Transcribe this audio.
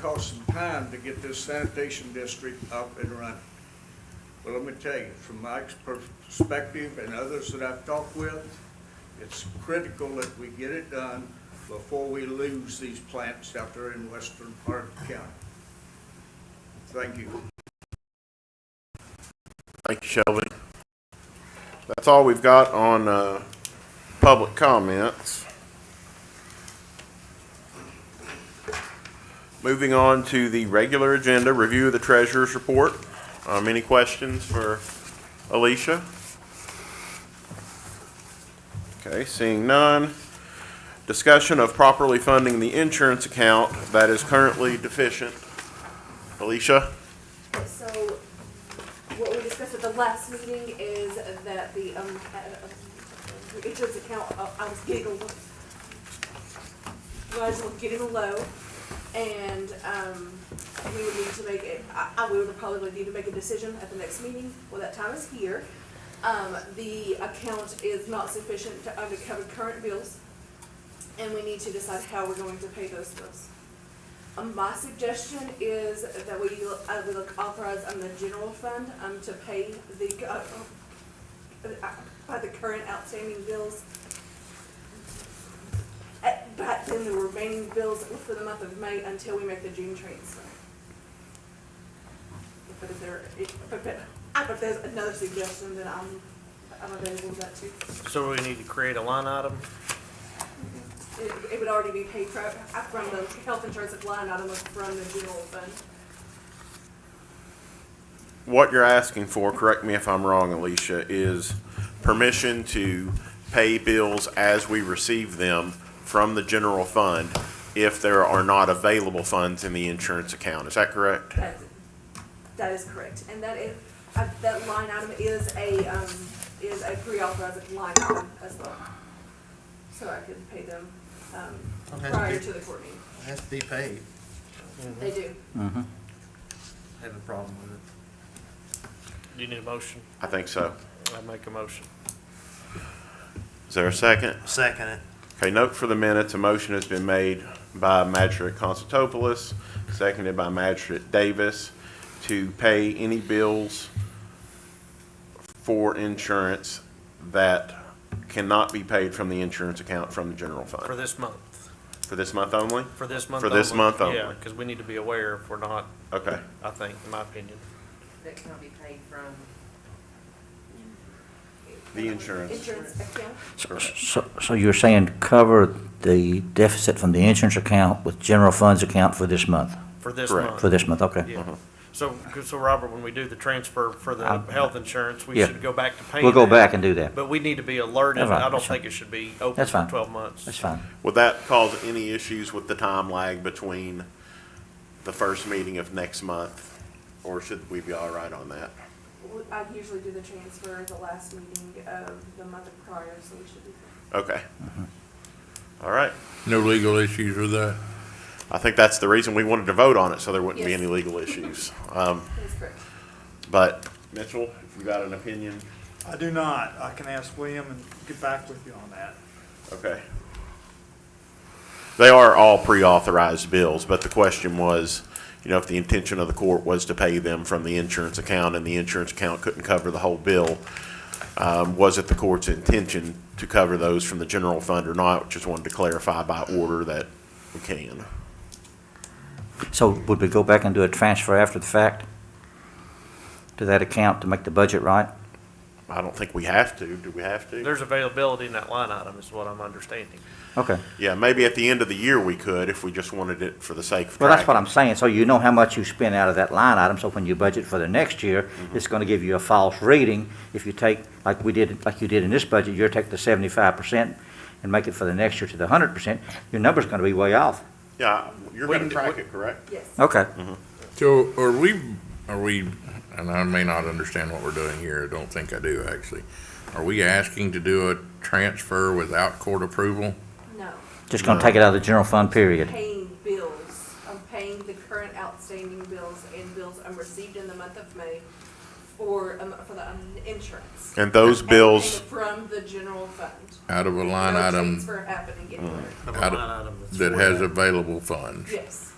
cost some time to get this sanitation district up and running. But let me tell you, from my ex- perspective and others that I've talked with, it's critical that we get it done before we lose these plants out there in western part of the county. Thank you. Thank you, Shelby. That's all we've got on, uh, public comments. Moving on to the regular agenda, review of the treasurer's report. Um, any questions for Alicia? Okay, seeing none. Discussion of properly funding the insurance account that is currently deficient. Alicia? So what we discussed at the last meeting is that the, um, uh, it just account, uh, I was getting a little, was getting low and, um, we would need to make it, I, I would probably need to make a decision at the next meeting. Well, that time is here. Um, the account is not sufficient to undercover current bills and we need to decide how we're going to pay those bills. Um, my suggestion is that we, uh, we look authorize on the general fund, um, to pay the, uh, uh, by the current outstanding bills. Uh, But then the remaining bills for the month of May until we make the June transfer. But if there, if, but, but, uh, but there's another suggestion that I'm, I'm available to that too. So we need to create a line item? It, it would already be paid for, uh, from the health insurance line item from the general fund. What you're asking for, correct me if I'm wrong, Alicia, is permission to pay bills as we receive them from the general fund if there are not available funds in the insurance account. Is that correct? That, that is correct, and that is, uh, that line item is a, um, is a pre-authorized line item as well. So I could pay them, um, Okay. prior to the court meeting. Has to be paid. They do. Have a problem with it. Do you need a motion? I think so. I make a motion. Is there a second? Second it. Okay, note for the minutes, a motion has been made by Magistrate Constantopoulos, seconded by Magistrate Davis, to pay any bills for insurance that cannot be paid from the insurance account from the general For fund. this month, For this month only? for this month For only. this month only. Yeah, because we need to be aware if we're not, Okay, I think, in my opinion. that cannot be paid from. the insurance. Insurance account, So, so you're saying cover the deficit from the insurance account with general funds account for this month? For this Correct. Mm-hmm. month. For this month, okay. Yeah. So, so Robert, when we do the transfer for the I- health insurance, we Yeah. should go back to paying We'll go that. back and do that. But we need to be alerted. That's fine. I don't That's fine. think it should be open That's for fine. twelve months. That's fine. Would that cause any issues with the time lag between the first meeting of next month? Or should we be all right on that? We- I usually do the transfer the last meeting of the month prior, so we should be. fine. Okay. All right. No legal issues with that? I think that's the reason we wanted to vote on it, so there wouldn't be Yes. any legal issues. Um, That is correct. but Mitchell, if you got an opinion, I do not. I can ask William and get back with you on that. okay. They are all pre-authorized bills, but the question was, you know, if the intention of the court was to pay them from the insurance account and the insurance account couldn't cover the whole bill, um, was it the court's intention to cover those from the general fund or not? Just wanted to clarify by order that we can. So would we go back and do a transfer after the fact to that account to make the budget right? I don't think we have to. Do we have to? There's availability in that line item is what I'm understanding. Okay. Yeah, maybe at the end of the year we could, if we just wanted it for the sake of. Well, that's tracking. what I'm saying. So you know how much you spend out of that line item, so when you budget for the next year, it's gonna give you a false reading. If you take, like we did, like you did in this budget, you take the seventy-five percent and make it for the next year to the hundred percent, your number's gonna be way off. Yeah, you're We gonna can- track it, correct? Yes. Okay. So are we, are we, and I may not understand what we're doing here, I don't think I do actually. Are we asking to do a transfer without court approval? No, Just gonna take it out of the general fund, period. paying bills, I'm paying the current outstanding bills and bills I'm received in the month of May for, um, for the, um, insurance. And those bills, And From the general fund. Out of a line No item transfer happening anywhere. Of a Out of- line item that's that for has available funds? Yes,